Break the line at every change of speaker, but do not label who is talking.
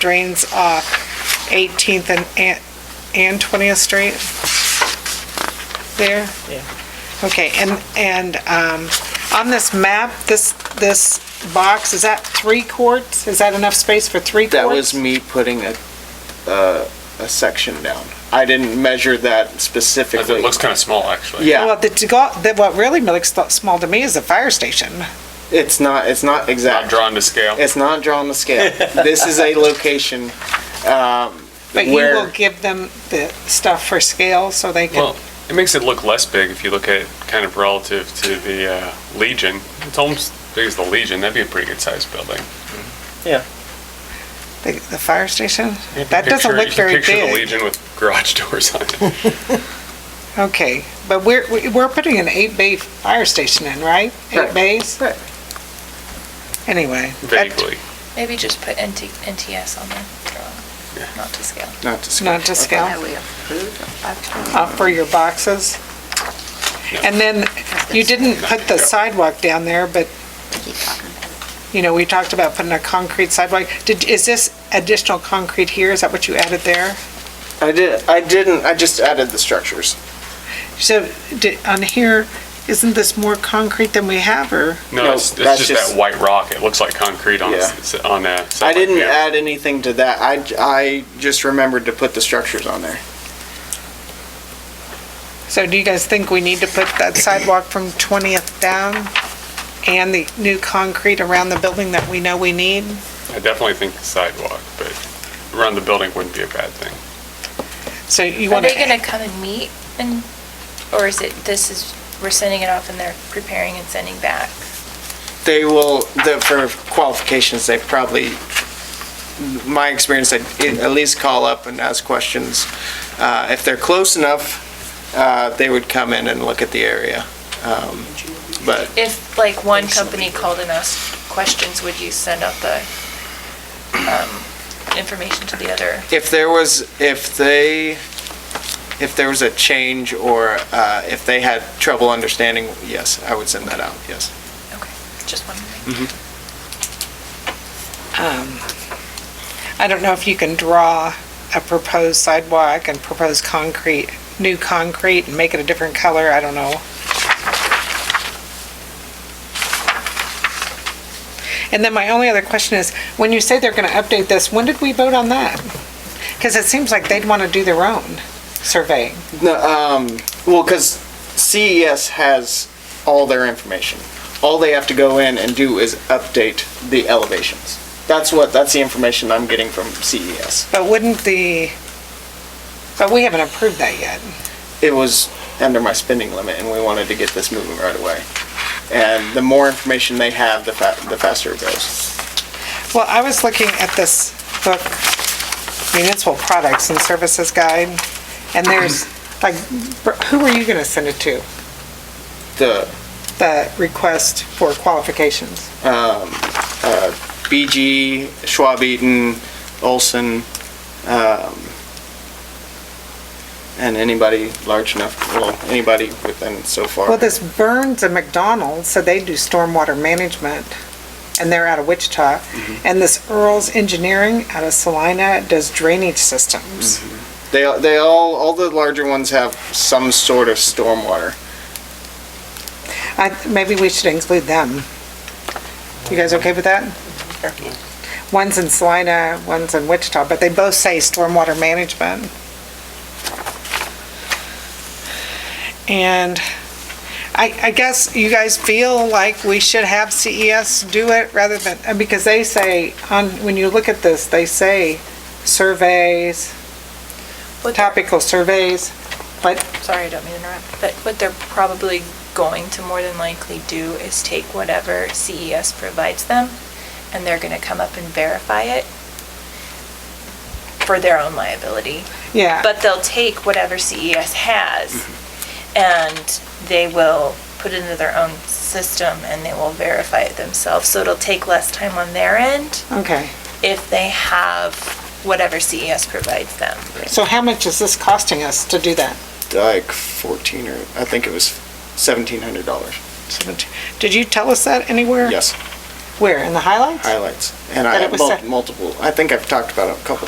drains off 18th and- and, and 20th Street? There?
Yeah.
Okay, and, and um, on this map, this, this box, is that three quarts? Is that enough space for three quarts?
That was me putting a, uh, a section down. I didn't measure that
It
specifically.
looks kind of small, actually.
Well,
Yeah,
the, to go- that what really looks th- small to me is the fire station.
it's not, it's not
Not
exact.
drawn to scale.
It's not drawn the scale. This is a location, um,
But you will
where,
give them the stuff for scale so they can,
Well, it makes it look less big if you look at it kind of relative to the uh, Legion. It's almost as big as the Legion. That'd be a pretty good sized building.
the, the fire station?
You can
That doesn't
picture-
look
you can
very
Picture the
big.
Legion with garage doors on it.
Okay, but we're, we- we're putting an eight-bay fire station in, right? Eight
Right.
bays?
Right.
Anyway. that-
Vaguely.
Maybe just put NT NTS on the drawing, not to scale.
not to scale.
Not to scale,
we approve
uh, for your boxes. And then, you didn't put the sidewalk down there, but, you know, we talked about putting a concrete sidewalk. Did, is this additional concrete here? Is that what you added there?
I did, I didn't, I just added the structures.
So, di- on here, isn't this more concrete than we have, or?
No,
No,
it's,
that's
it's just,
just-
that white rock. It looks like concrete on a, s- on a.
I
satellite
didn't
view.
add anything to that. I, j- I just remembered to put the structures on there.
So do you guys think we need to put that sidewalk from 20th down and the new concrete around the building that we know we need?
I definitely think the sidewalk, but around the building wouldn't be a bad thing.
So you
Are
want
they
to,
gonna come and meet and, or is it, this is, we're sending it off and they're preparing and sending back?
They will, the, for qualifications, they probably, my experience, they at least call up and ask questions. Uh, If they're close enough, uh, they would come in and look at the area. Um, But
If like one company called and asked questions, would you send out the, um, information to the other?
if there was, if they, if there was a change or uh, if they had trouble understanding, yes, I would send that out, yes.
Okay, just one.
I don't know if you can draw a proposed sidewalk and proposed concrete, new concrete, and make it a different color, I don't know. And then my only other question is, when you say they're going to update this, when did we vote on that? Because it seems like they'd want to do their own surveying.
No, um, well, because CES has all their information. All they have to go in and do is update the elevations. That's what, that's the information I'm getting from E CES.
But wouldn't the, but we haven't approved that yet.
It was under my spending limit, and we wanted to get this moving right away. And the more information they have, the fa- the faster it goes.
Well, I was looking at this book, Municipal Products and Services Guide, and there's, like, who are you gonna send it to?
The
The request for qualifications?
BG, Schwab Eaton, Olson, um, and anybody large enough, well, anybody within so far.
Well, this Burns and McDonald said they do stormwater management, and they're out of Wichita. And this Earl's Engineering out of Salina does drainage systems.
They, they all, all the larger ones have some sort of stormwater.
I, maybe we should include them. You guys okay with that? One's in Salina, one's in Wichita, but they both say stormwater management. And I, I guess you guys feel like we should have CES do it rather than, uh, because they say, on, when you look at this, they say surveys,
What they're-
topical surveys, but
sorry, I don't mean to interrupt, but what they're probably going to more than likely do is take whatever CES provides them, and they're gonna come up and verify it for their own liability.
yeah.
But they'll take whatever CES has, and they will put it into their own system, and they will verify it themselves. So it'll take less time on their end
Okay,
if they have whatever CES provides them.
so how much is this costing us to do that?
Like fourteen or, I think it was seventeen hundred dollars.
Seventeen. Did you tell us that anywhere?
Yes.
Where, in the highlights?
highlights. And I
But it
have
was
mul-
set-
multiple, I think I've talked about it a couple